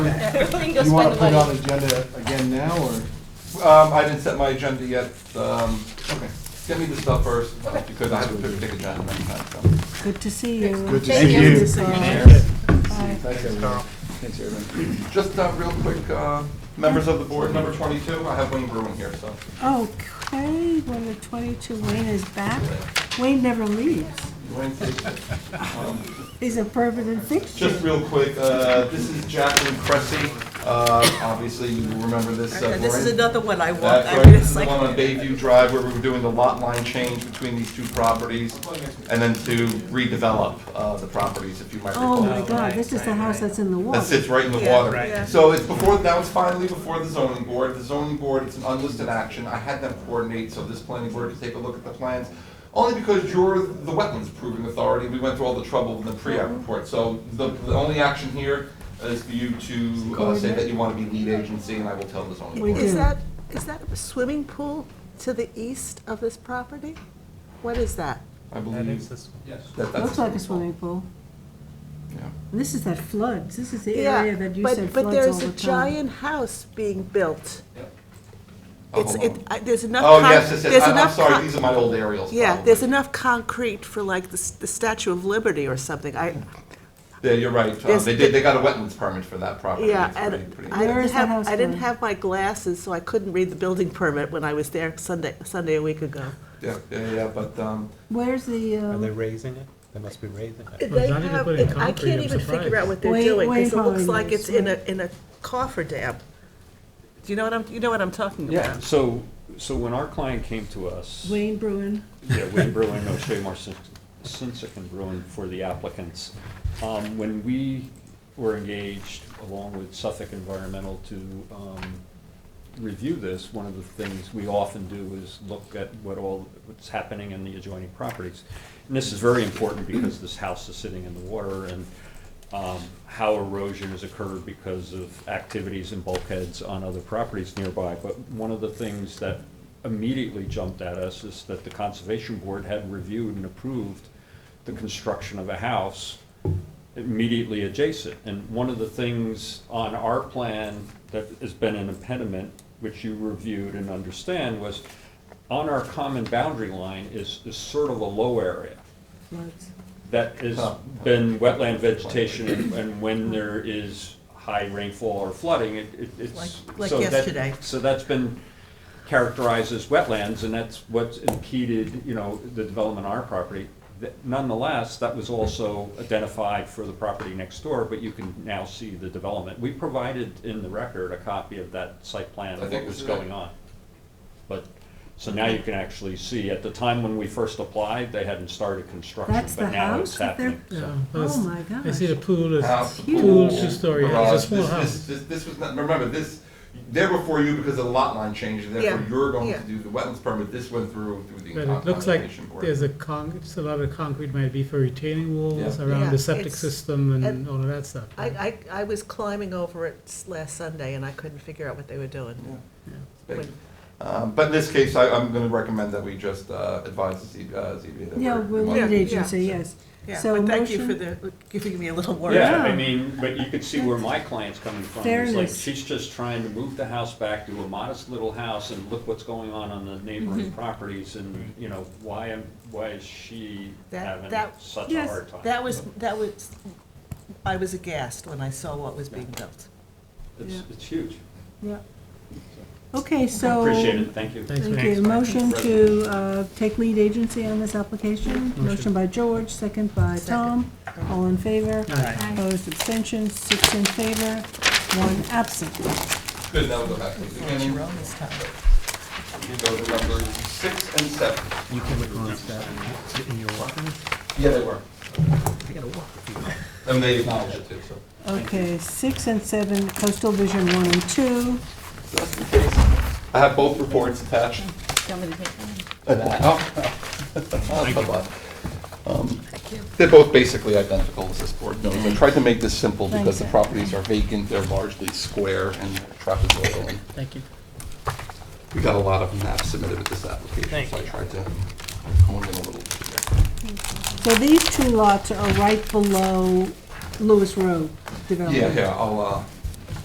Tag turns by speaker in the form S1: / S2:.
S1: Everything goes
S2: You
S1: by
S2: wanna
S1: the
S2: put it on
S1: money.
S2: the agenda again now, or?
S3: Um, I didn't set my agenda yet, um,
S2: Okay.
S3: get me the stuff first,
S1: Okay.
S3: because I have a big agenda next time, so.
S4: Good to see you.
S2: Good to
S1: Thank
S2: see
S1: you.
S2: you.
S5: Thanks, Carl. Thanks, everyone.
S3: Just, uh, real quick, uh, members of the board, number twenty-two, I have Wayne Bruin here, so.
S4: Okay, when the 22 Wayne is back, Wayne never leaves.
S3: Wayne, take it.
S4: He's a permanent fixture.
S3: Just real quick, uh, this is Jacqueline Cressy, uh, obviously you remember this, uh,
S1: This is
S3: Lorraine.
S1: another one I want.
S3: That's
S1: I
S3: right, this
S1: was
S3: is the
S1: like,
S3: one on Bayview Drive where we were doing the lot line change between these two properties, and then to redevelop, uh, the properties, if you might recall.
S4: Oh, my God, this is the house that's in the
S3: That
S4: water.
S3: sits right in the
S1: Yeah,
S3: water.
S1: yeah.
S3: So it's before, that was finally before the zoning board. The zoning board, it's an unlisted action. I had them coordinate so this planning board could take a look at the plans. Only because you're the wetlands proving authority. We went through all the trouble in the pre-app
S6: Mm-hmm.
S3: report. So the, the only action here is for you to uh, say that you want to be lead agency and I will tell the zoning
S4: We
S3: board.
S4: do.
S6: Is that, is that a swimming pool to the east of this property? What is that?
S3: I
S5: That is
S3: believe
S5: this.
S3: that that's.
S4: Looks like a swimming pool.
S3: Yeah.
S4: And This is that floods, this is the
S6: Yeah,
S4: area that you said
S6: but, but
S4: floods all
S6: there's
S4: the
S6: a
S4: time.
S6: giant house being built.
S3: Oh,
S6: It's,
S3: hold
S6: it,
S3: on.
S6: I- there's enough.
S3: Oh,
S6: con-
S3: yes, yes,
S6: there's
S3: yes. I- I'm
S6: enough
S3: sorry,
S6: con-
S3: these are my old aerials.
S6: Yeah,
S3: probably.
S6: there's enough concrete for like the, s- the Statue of Liberty or something. I,
S3: Yeah, you're right. Uh,
S6: There's-
S3: They did, they got a wetlands permit for that property.
S6: yeah,
S3: It's pretty-
S6: and
S3: pretty-
S6: I
S4: Where
S6: didn't
S4: is that house
S6: have, I didn't
S4: going?
S6: have my glasses, so I couldn't read the building permit when I was there Sunday, Sunday a week ago.
S3: Yeah, yeah, yeah, but, um,
S4: Where's the,
S5: Are they
S4: uh,
S5: raising it? They must be raising it.
S6: They
S7: not even
S6: have,
S7: putting
S6: it- I
S7: concrete,
S6: can't
S7: I'm
S6: even figure out
S7: surprised.
S6: what they're
S4: Wait-
S6: doing,
S4: wait
S6: because it looks
S4: for
S6: like
S4: this,
S6: it's in a,
S4: wait.
S6: in a cofferdam. Do you know what I'm, you know what I'm talking about?
S8: Yeah, so, so when our client came to us,
S4: Wayne Bruin?
S8: yeah, Wayne Berlin, O'Shea Marcin, Sinsick and Bruin for the applicants, um, when we were engaged along with Suffolk Environmental to, um, review this, one of the things we often do is look at what all, what's happening in the adjoining properties. And this is very important because this house is sitting in the water and um, how erosion has occurred because of activities and bulkheads on other properties nearby. But one of the things that immediately jumped at us is that the Conservation Board had reviewed and approved the construction of a house immediately adjacent. And one of the things on our plan that has been an impediment, which you reviewed and understand, was on our common boundary line is, is sort of a low area
S4: Floods.
S8: that has
S3: Huh.
S8: been wetland vegetation, and- and when there is high rainfall or flooding, it, it- it's.
S6: Like- like
S8: so that-
S6: yesterday.
S8: So that's been characterized as wetlands, and that's what's impeded, you know, the development on our property. Th- Nonetheless, that was also identified for the property next door, but you can now see the development. We provided in the record a copy of that site plan
S3: I
S8: of
S3: think
S8: what was
S3: this is it.
S8: going on. But, so now you can actually see, at the time when we first applied, they hadn't started construction,
S4: That's the
S8: but now
S4: house
S8: it's
S4: that they're,
S8: happening.
S4: oh my gosh.
S7: I see the pool is,
S3: house,
S4: huge.
S7: pool, two-story,
S3: garage.
S7: it's a small
S3: This-
S7: house.
S3: This, this, this was not, remember, this, they were for you because of the lot line change, and therefore
S6: Yeah,
S3: you're going to
S6: yeah.
S3: do the wetlands permit, this went through, through the
S7: But it looks like
S3: conservation board.
S7: there's a con, it's a lot of concrete might be for retaining walls
S3: Yeah.
S7: around
S6: Yeah,
S7: the septic
S6: it's-
S7: system and
S6: and-
S7: all of that stuff.
S6: I, I, I was climbing over it s- last Sunday and I couldn't figure out what they were doing.
S3: Big. Um, but in this case, I, I'm gonna recommend that we just, uh, advise the Z, uh, ZBA that
S4: Yeah, we're
S3: we
S4: lead
S3: want-
S4: agency, yes.
S6: Yeah,
S4: So
S6: but thank you for
S4: motion-
S6: the, giving me a little
S4: Oh,
S6: word.
S8: Yeah, I
S4: Yeah.
S8: mean, but you could see where my client's coming from. It's like,
S4: Fairness.
S8: she's just trying to move the house back to a modest little house and look what's going on on the
S4: Mm-hmm.
S8: neighboring properties and, you know, why, am why is she
S6: That-
S8: having
S6: that-
S8: such a
S4: yes,
S8: hard time?
S6: That was, that was, I was aghast when I saw what was being built.
S8: It's,
S4: Yeah.
S8: it's huge.
S4: Okay, so.
S8: Appreciate it, thank you.
S7: Thanks,
S4: Thank
S7: Mary.
S4: you. Motion to uh, take lead agency on this application. Motion by George, second by Tom. All in favor?
S7: Aye.
S4: Opposed, abstentions, six in favor, one absent.
S3: Good, now we'll go back to the beginning.
S6: Jerome this time.
S3: You go to number six and seven.
S5: You can look on that in your walking.
S3: Yeah, they were. And they acknowledged it too, so.
S4: Okay, six and seven, coastal vision one and two.
S3: So that's the case. I have both reports attached. Oh. Um, They're both basically identical, as this board knows. I tried to make this simple because the properties are vacant, they're largely square and trapezoidal. and
S7: Thank you.
S3: We got a lot of maps submitted with this application, so I tried to hone in a little. bit here.
S4: So these two lots are right below Lewis Road
S3: Yeah,
S4: development.
S3: yeah, I'll, uh,